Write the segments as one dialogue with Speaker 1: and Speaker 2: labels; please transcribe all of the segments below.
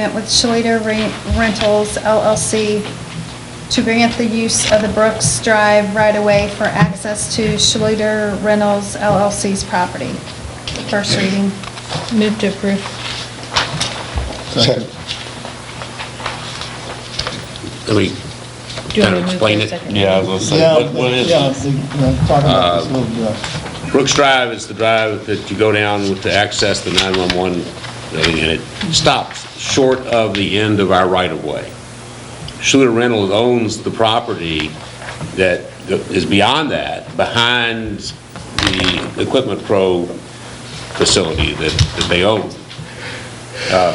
Speaker 1: agreement with Shalita Re- Rentals LLC to grant the use of the Brooks Drive right-of-way for access to Shalita Rentals LLC's property. First reading.
Speaker 2: Move to approve.
Speaker 3: Second.
Speaker 4: Let me
Speaker 2: Do you want
Speaker 4: kind
Speaker 2: to move
Speaker 4: of
Speaker 2: to
Speaker 4: explain
Speaker 2: a
Speaker 4: it.
Speaker 2: second?
Speaker 5: Yeah, I was gonna say,
Speaker 3: Yeah,
Speaker 5: what- what is
Speaker 3: yeah,
Speaker 5: it?
Speaker 3: the- yeah, talk about this a little bit.
Speaker 4: Brooks Drive is the drive that you go down with to access the 911 building, and it stops short of the end of our right-of-way. Schuler Reynolds owns the property that is beyond that, behind the Equipment Pro facility that that they own. Um,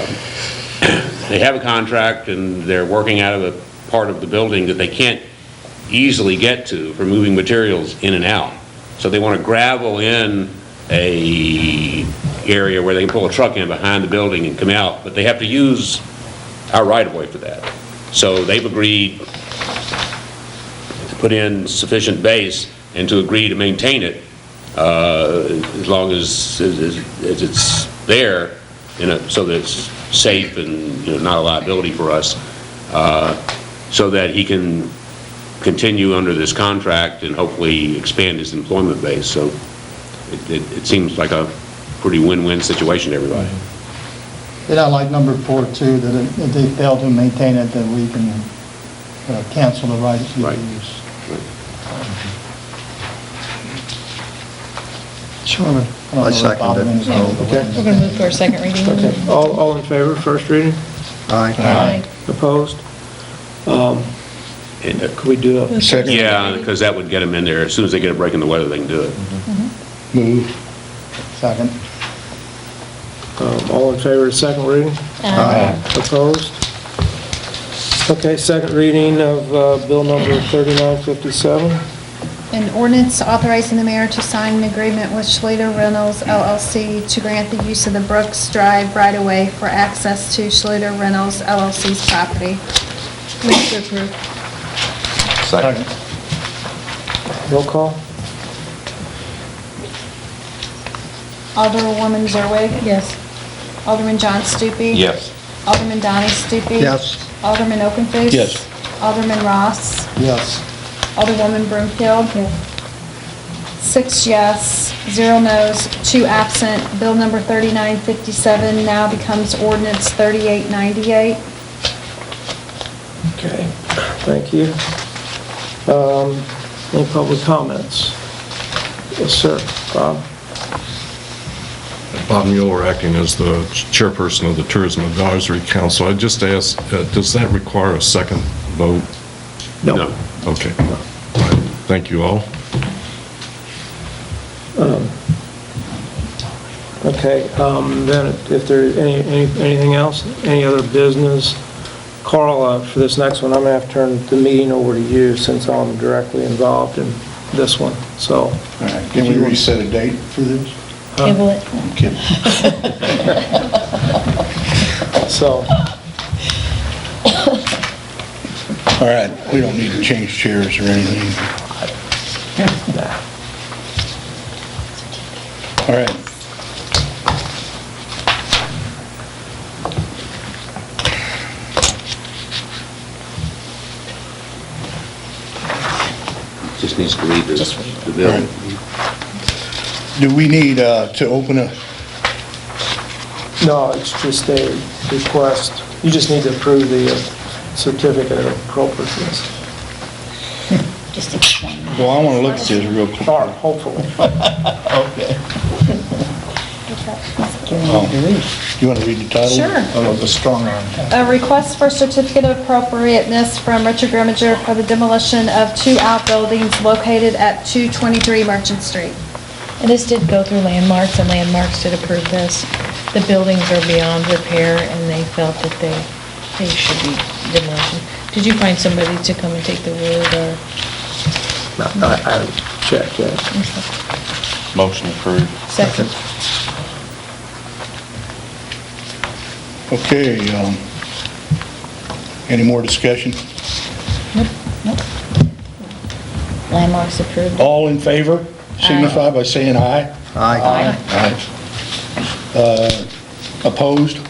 Speaker 4: They have a contract, and they're working out of a part of the building that they can't easily get to for moving materials in and out. So they want to gravel in a area where they can pull a truck in behind the building and come out, but they have to use our right-of-way for that. So they've agreed to put in sufficient base and to agree to maintain it uh, as long as, as as it's there, you know, so that it's safe and, you know, not a liability for us, uh, so that he can continue under this contract and hopefully expand his employment base. So it, it it seems like a pretty win-win situation to everybody.
Speaker 3: And I like number four too, that if- if they fail to maintain it, that we can uh, cancel the right of
Speaker 4: Right.
Speaker 3: use. Sure. I don't
Speaker 6: I
Speaker 3: know
Speaker 6: second
Speaker 3: what Bob
Speaker 6: it.
Speaker 3: means.
Speaker 6: Oh, okay.
Speaker 2: We're going to move to our second reading.
Speaker 3: Okay.
Speaker 7: All, all in favor, first reading?
Speaker 6: Aye.
Speaker 2: Aye.
Speaker 7: Opposed? Um, uh, Could we do a,
Speaker 2: Second.
Speaker 4: Yeah, because that would get them in there. As soon as they get a break in the weather, they can do it.
Speaker 3: Second.
Speaker 7: um, all in favor of second reading?
Speaker 2: Aye.
Speaker 7: Opposed? Okay, second reading of uh, bill number 3957.
Speaker 1: An ordinance authorizing the mayor to sign an agreement with Shalita Reynolds LLC to grant the use of the Brooks Drive right-of-way for access to Shalita Reynolds LLC's property.
Speaker 2: Move to approve.
Speaker 5: Second.
Speaker 7: Roll call?
Speaker 1: Alderwoman Zerwig.
Speaker 2: Yes.
Speaker 1: Alderman John Stupi.
Speaker 5: Yes.
Speaker 1: Alderman Donnie Stupi.
Speaker 6: Yes.
Speaker 1: Alderman Okenthus.
Speaker 5: Yes.
Speaker 1: Alderman Ross.
Speaker 3: Yes.
Speaker 1: Alderwoman Broomfield. Six yes, zero no's, two absent. Bill number 3957 now becomes ordinance 3898.
Speaker 7: Okay, thank you. Um, Any public comments? Yes, sir, Uh, Bob?
Speaker 8: Bob Mueller, acting as the chairperson of the Tourism Advisory Council. I just asked, uh, does that require a second vote?
Speaker 4: No.
Speaker 8: Okay. Thank you all.
Speaker 7: Okay, um, then if there, any, any- anything else, any other business? Carl, uh, for this next one, I'm gonna have to turn the meeting over to you since I'm directly involved in this one, so.
Speaker 3: All right. Can we reset a date for this?
Speaker 2: Table it.
Speaker 7: So,
Speaker 9: All right, we don't need to change chairs or anything. All right.
Speaker 4: Just needs to read the, the
Speaker 9: All
Speaker 4: bill.
Speaker 9: right. Do we need uh, to open a,
Speaker 7: no, it's just a request. You just need to approve the uh, certificate of appropriateness,
Speaker 9: well, I want to look at this real quick.
Speaker 7: or hopefully.
Speaker 9: You want to read the title?
Speaker 1: Sure.
Speaker 3: Oh, the strong arm.
Speaker 1: A request for certificate of appropriateness from Richard Grimminger for the demolition of two outbuildings located at 223 Merchant Street.
Speaker 2: And this did go through landmarks, and landmarks did approve this. The buildings are beyond repair, and they felt that they, they should be demolished. Did you find somebody to come and take the wood, or?
Speaker 7: No, I I checked that.
Speaker 5: Motion approved.
Speaker 2: Second.
Speaker 9: Okay, um, any more discussion?
Speaker 2: Landmarks approved.
Speaker 9: All in favor, signify by saying aye.
Speaker 6: Aye.
Speaker 9: Aye. Uh, Opposed?